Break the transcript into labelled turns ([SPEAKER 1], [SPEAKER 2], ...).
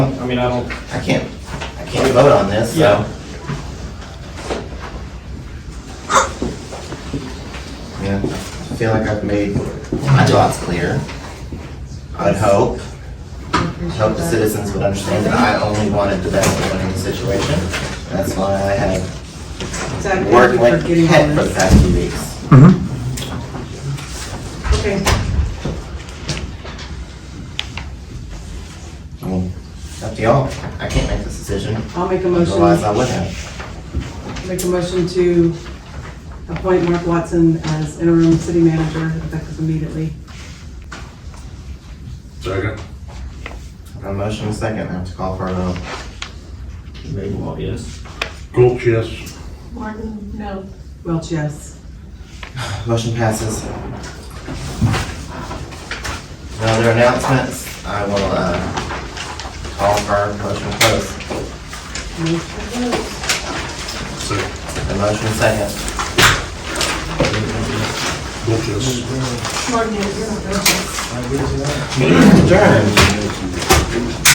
[SPEAKER 1] I mean, I don't,
[SPEAKER 2] I can't, I can't vote on this, so.
[SPEAKER 1] Yeah.
[SPEAKER 2] Yeah, I feel like I've made my thoughts clear. I'd hope, hope the citizens would understand that I only wanted the best for the situation. That's why I had
[SPEAKER 3] Exactly.
[SPEAKER 2] worked like
[SPEAKER 3] Forgetting all
[SPEAKER 2] heck for the
[SPEAKER 3] this.
[SPEAKER 2] past few weeks.
[SPEAKER 3] Okay,
[SPEAKER 2] I mean, it's up to y'all. I can't make this decision.
[SPEAKER 3] I'll make a
[SPEAKER 2] Otherwise, I
[SPEAKER 3] motion,
[SPEAKER 2] would have.
[SPEAKER 3] make a motion to appoint Mark Watson as interim city manager effective immediately.
[SPEAKER 4] Second.
[SPEAKER 2] A motion and a second, I have to call for a vote.
[SPEAKER 1] well, yes.
[SPEAKER 4] Golch, yes.
[SPEAKER 5] Martin, no.
[SPEAKER 3] Welch, yes.
[SPEAKER 2] Motion passes. No other announcements? I will, uh, call for our motion to close.
[SPEAKER 4] Second.
[SPEAKER 2] The motion is second.
[SPEAKER 4] Golch, yes.
[SPEAKER 5] Martin, you're not.
[SPEAKER 2] Adjourned.